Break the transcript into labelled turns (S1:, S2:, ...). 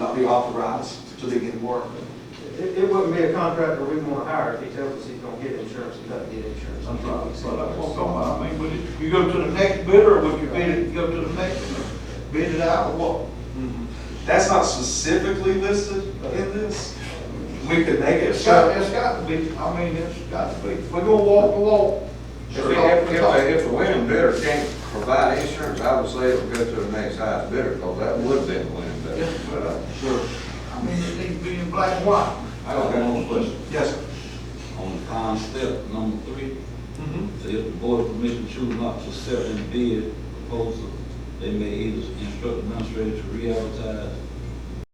S1: not be authorized to begin work.
S2: It, it wouldn't be a contractor we'd want to hire if he tells us he's gonna get insurance, he doesn't get insurance.
S3: That's right, so that's what I'm talking about, I mean, would it- you go to the next bidder, or would you bid it, go to the next, bidder? bid it out, or what?
S1: That's not specifically listed in this. We could make it.
S3: It's got, it's got to be, I mean, it's got to be, we're gonna walk the walk.
S4: If, we- if, if a- if a winning bidder can't provide insurance, I would say it'll go to the next highest bidder, because that would be the winning bidder.
S3: Yes, but, uh, I mean, it needs to be in black and white. I don't want to listen.
S1: Yes, sir.
S5: On time step number three,
S1: Mhm.
S5: if the board of commission choose not to accept and bid proposal, they may either instruct the administrator to re-advertise